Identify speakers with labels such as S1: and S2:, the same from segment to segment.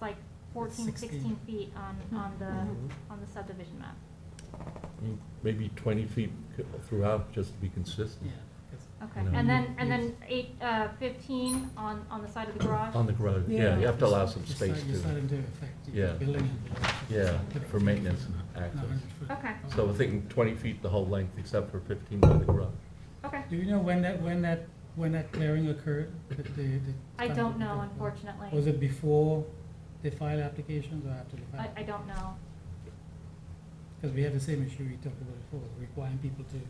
S1: like 14,
S2: 16.
S1: 16 feet on, on
S3: Mm-hmm.
S2: Mhm.
S1: the, on the subdivision map.
S3: Mm, Maybe twenty feet c- throughout, just to be consistent,
S2: Yeah, because-
S1: Okay,
S3: No.
S1: and then, and then eight, uh, 15 on, on the side of the garage?
S3: on the garage, yeah, you have to allow some
S2: It's
S3: space
S2: not- It's not
S3: to,
S2: into effect,
S3: Yeah.
S2: you're building it.
S3: yeah,
S2: Typical.
S3: for maintenance and
S2: No,
S3: access.
S2: 100 foot.
S1: Okay,
S3: So we're thinking twenty feet the whole length, except for fifteen by the garage.
S1: okay.
S2: Do you know when that, when that, when that clearing occurred? that they- they
S1: I
S2: started
S1: don't
S2: to
S1: know,
S2: build? Was
S1: unfortunately.
S2: it before they filed applications or after they
S1: I,
S2: filed?
S1: I don't know.
S2: Because we had the same issue we talked about before, requiring people to,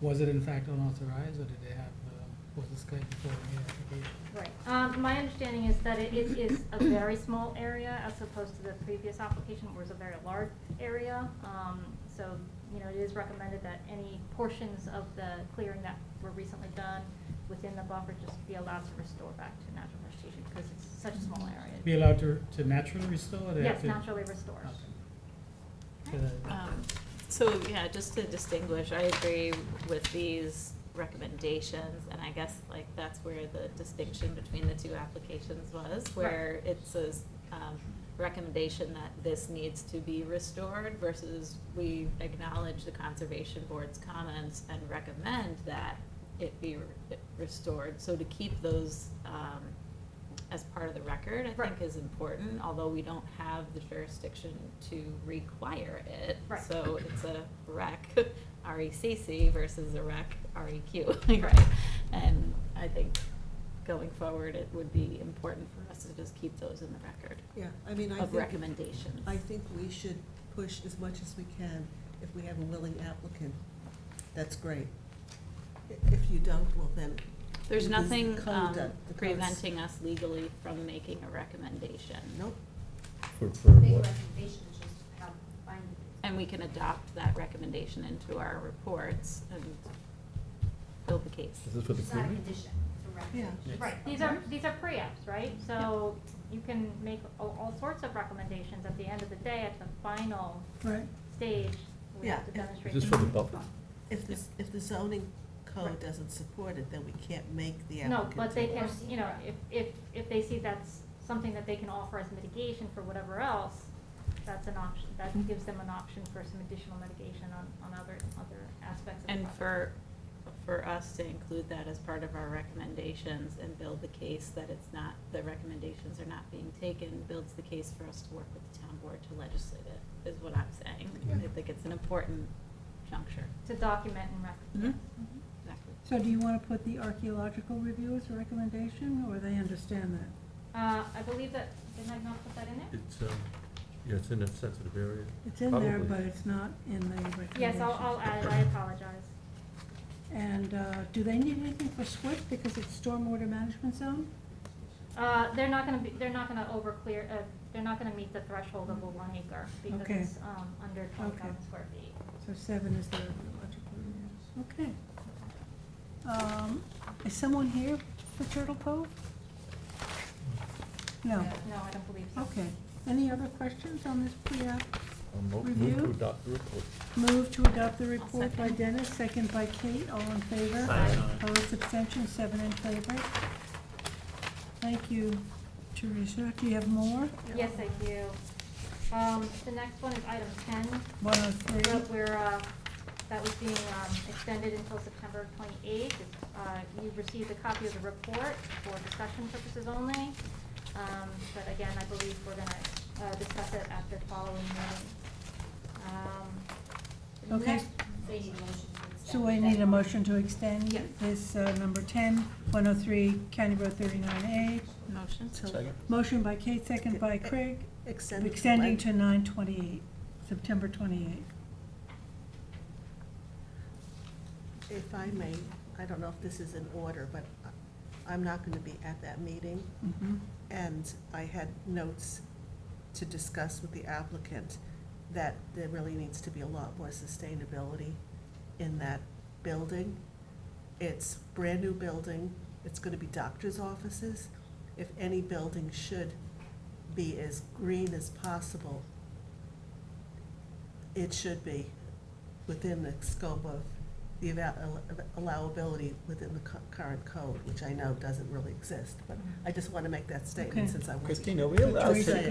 S2: was it in fact unauthorized or did they have, um, was this claim before the application?
S1: Right. Um, my understanding is that it, it is a very small area as opposed to the previous application where it's a very large area. Um, so, you know, it is recommended that any portions of the clearing that were recently done within the buffer just be allowed to restore back to natural vegetation because it's such a small
S2: Be
S1: area.
S2: allowed to, to naturally restore or they have
S1: Yes,
S2: to?
S1: naturally restored.
S2: Okay. So that-
S4: Um, So, yeah, just to distinguish, I agree with these recommendations, and I guess like that's where the distinction between the two applications was, where it says, um, recommendation that this needs to be restored versus we acknowledge the conservation board's comments and recommend that it be re- restored. So to keep those, um, as part of the record, I
S1: Right.
S4: think is important, although we don't have the jurisdiction to require it.
S1: Right.
S4: So it's a rec, R-E-C-C versus a rec, R-E-Q, right? And I think going forward, it would be important for us to just keep those in the record
S5: Yeah, I mean, I
S4: of
S5: think,
S4: recommendations.
S5: I think we should push as much as we can. If we have a willing applicant, that's great. I- If you don't, well then, Because
S4: There's
S5: the
S4: nothing um,
S5: conduct, the cons-
S4: preventing us legally from making a recommendation.
S5: nope.
S3: For, for
S6: Big
S3: what?
S6: recommendation is just how binding it
S4: And we can adopt that recommendation into our reports and build the case.
S3: Is this for
S6: is.
S3: the
S6: It's not a
S3: clearing?
S6: condition, it's a
S2: Yeah.
S6: recommendation.
S1: Right, these are, these are pre-apps, right? So you can make a- all sorts of recommendations at the end of the day at the final
S5: Right.
S1: stage. We have to
S5: Yeah, if-
S1: demonstrate
S3: Is this for the buffer?
S5: If the, if the zoning code
S1: Right.
S5: doesn't support it, then we can't make the
S1: No,
S5: applicant.
S1: but they
S5: do it.
S1: can, you know, if, if, if they see that's something that they can offer as mitigation for whatever else, that's an option, that gives them an option for some additional mitigation on, on other, other aspects of the
S4: And
S1: project.
S4: for, for us to include that as part of our recommendations and build the case that it's not, the recommendations are not being taken, builds the case for us to work with the town board to legislate it, is what I'm saying. I think it's an important juncture.
S1: To document and record.
S4: Mhm.
S7: Mm-hmm.
S1: Mhm.
S4: Exactly.
S7: So do you want to put the archaeological review as a recommendation, or they understand that?
S1: Uh, I believe that, didn't I not put that in there?
S3: It's, um, yeah, it's in a sensitive area.
S7: It's in there,
S3: Probably.
S7: but it's not in the recommendation.
S1: Yes, I'll, I'll add it, I apologize.
S7: And uh, do they need anything for SWIP because it's stormwater management zone?
S1: Uh, they're not gonna be, they're not gonna over clear, uh, they're not gonna meet the threshold of a one acre because
S7: Okay.
S1: it's, um, under twenty thousand
S7: Okay.
S1: square feet.
S7: So seven is the archaeological review. Okay. Um, Is someone here for Turtle Cove? No.
S1: No, I don't believe so.
S7: Okay. Any other questions on this pre-app?
S3: I'll mo- Um, move
S7: Review?
S3: to adopt the report.
S7: Move to adopt the report by
S4: second.
S7: Dennis, second by Kate, all in favor?
S1: Aye.
S7: Opposed, abstentions, seven in favor. Thank you, Teresa. Do you have more?
S1: Yes, I do. Um, the next one is item ten,
S7: One oh three.
S1: where- where, uh, that was being, um, extended until September twenty-eighth. Uh, you received a copy of the report for discussion purposes only. Um, but again, I believe we're gonna, uh, discuss it at the following meeting. Um, the
S7: Okay.
S1: next-
S6: So you need a motion to accept.
S7: So I need a motion to extend
S1: Yes.
S7: this, uh, number ten, one oh three, County Road thirty-nine
S4: Motion?
S5: So
S3: Second.
S7: A. Motion by Kate, second by Craig,
S5: Extend. it
S7: extending
S5: when-
S7: to nine twenty-eight, September twenty-eighth.
S5: If I may, I don't know if this is in order, but I- I'm not gonna be at that meeting.
S7: Mm-hmm.
S5: And I had notes to discuss with the applicant that there really needs to be a lot more sustainability in that building. It's brand-new building, it's gonna be doctor's offices. If any building should be as green as possible, it should be within the scope of the ava- allowability within the cu- current code, which I know doesn't really exist, but I just wanna make that
S7: Okay.
S5: statement since I wasn't
S8: Christine, are we allowed
S7: Teresa,
S8: to